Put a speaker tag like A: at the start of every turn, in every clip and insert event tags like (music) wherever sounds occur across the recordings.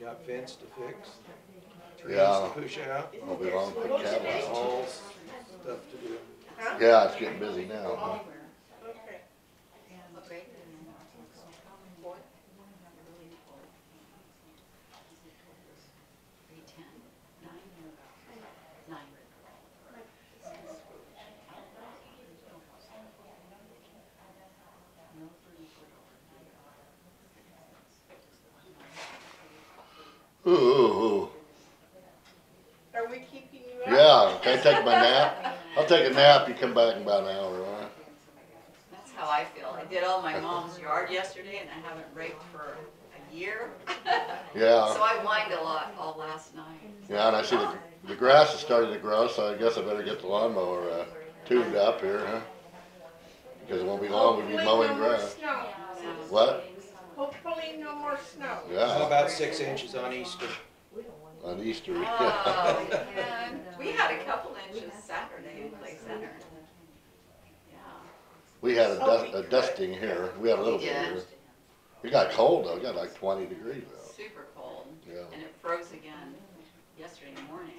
A: Got fence to fix, trees
B: Yeah.
A: to push out,
B: It'll be long for cat lights.
A: all stuff to do.
B: Yeah, it's getting busy now, huh?
C: Okay. What? Three, ten, nine, nine.
B: Ooh, ooh, ooh.
D: Are we keeping you up?
B: Yeah, can I take my nap? I'll take a nap, you come back in about an hour, all right?
C: That's how I feel. I did all my mom's yard yesterday and I haven't raked for a year. So
B: Yeah,
C: I whined a lot all last night.
B: yeah, and I see the, the grass is starting to grow, so I guess I better get the lawnmower, uh, tuned up here, huh? Because it won't be long, oh, we'll be
D: Hopefully
B: mowing
D: no more
B: grass.
D: snow.
B: What?
D: Hopefully no more snow.
A: How
B: Yeah,
A: about six inches on Easter?
B: on Easter, (laughs) yeah.
C: Oh, man. We had a couple inches Saturday in Clay Center. Yeah.
B: We had a dust, a dusting here, we had a little
C: We
B: bit here.
C: did.
B: It got cold though, it got like twenty degrees though,
C: Super cold.
B: yeah.
C: And it froze again yesterday morning.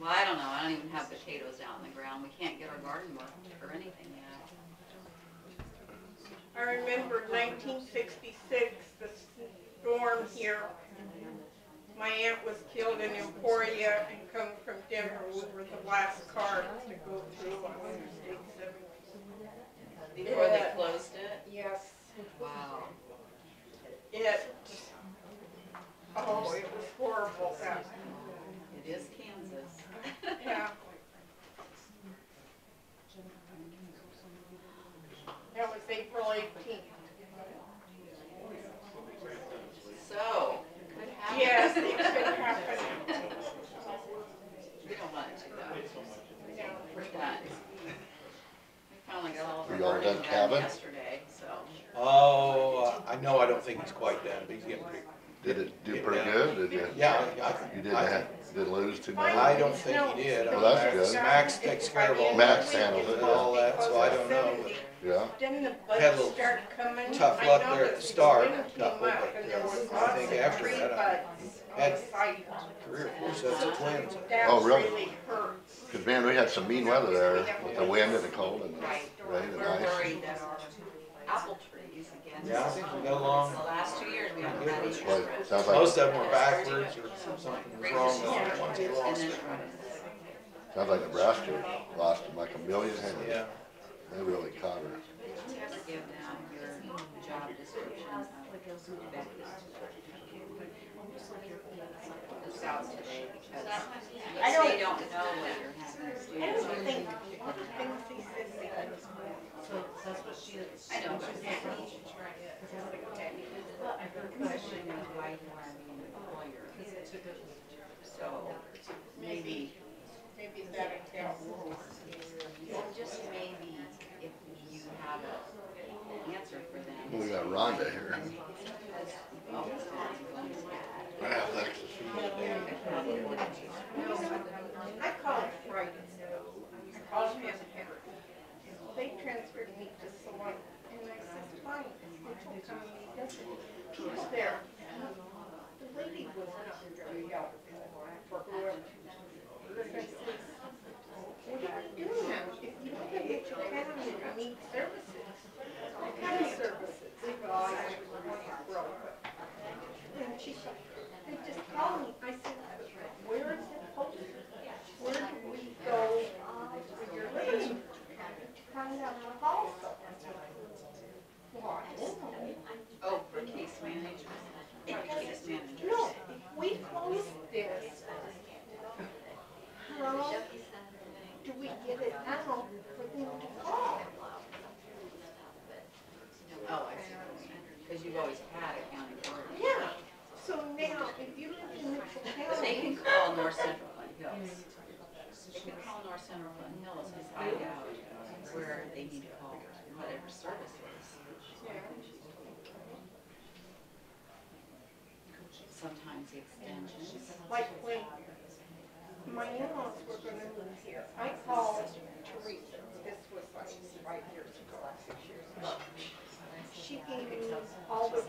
C: Well, I don't know, I don't even have potatoes out in the ground, we can't get our garden worked or anything yet.
D: I remember nineteen sixty-six, the storm here. My aunt was killed in Emporia and come from Denver. We were the last car to go through on Interstate seventy.
C: Before they
D: Yeah.
C: closed it?
D: Yes,
C: Wow.
D: it, oh, it was horrible, that,
C: It is Kansas. (laughs)
D: yeah. That was April eighteenth.
C: So, could happen. (laughs)
D: Yes, it could happen.
C: We don't want it to though.
D: Yeah.
C: We're done. We finally got all of our
B: Are y'all
C: garden
B: done
C: done
B: cabin?
C: yesterday, so.
A: Oh, I know, I don't think he's quite done, but he's getting pretty,
B: Did it do pretty good, did you?
A: yeah, I,
B: You didn't have, didn't lose too much?
A: I don't think he did.
B: Well,
A: Max-
B: that's good.
A: Max takes care of all that.
B: Max handles it,
A: And all that, so I don't know.
B: Yeah,
D: Then the
A: Had a
D: bugs
A: little
D: start coming.
A: tough
D: I
A: luck
D: know
A: there at
D: that
A: the start,
D: spring came
A: not with
D: up
A: it.
D: and there was
A: I
D: lots
A: think
D: of
A: after
D: tree
A: that, I
D: bugs on
A: had-
D: the site.
A: Three or four sets of twins.
B: Oh,
D: That
B: really?
D: really hurts.
B: cause man, we had some mean weather there with the wind and the cold and the rain and
C: We're
B: ice.
C: worried that our apple trees again.
A: Yeah, I think we got along.
C: The last two years, we haven't had any.
B: Well, it sounds like,
A: Most of them were backwards or something was wrong with them once he lost it.
B: sounds like Nebraska lost them like a million hands.
A: Yeah.
B: They really caught her.
C: Did you ever give them your job description of Becky's? It's out today because they don't know what you're having.
D: I don't think, one of the things he said, they could
C: I know, but the question is why you are being a lawyer. So maybe,
D: maybe that accounts.
C: just maybe if you have an answer for them.
B: We got Rhonda here.
C: Oh, it's going to be-
B: Yeah, thanks.
D: Um, I called Friday. I called him and had- They transferred me to someone and I said, fine, they told me he doesn't. He was there. The lady was not very helpful for whoever. But I said, What are you doing now? If you look at your family, you need services. I kind of services. "Oh, And she said, they just called me. I said, where is it posted? Where do we go for your leave? Find out the policy. Why?
C: Oh, for case managers. For case managers.
D: No, if we close this, how do we get it out for them to call?
C: Oh, I see. Because you've always had a county board.
D: Yeah, so now, if you live in Mitchell
C: But they
D: County,
C: can call North Central Flint Hills. They can call North Central Flint Hills and find out where they need to call, whatever services. Sometimes the extensions.
D: like when my in-laws were gonna move here, I called Teresa, this was like five years ago, six years ago. She gave me all the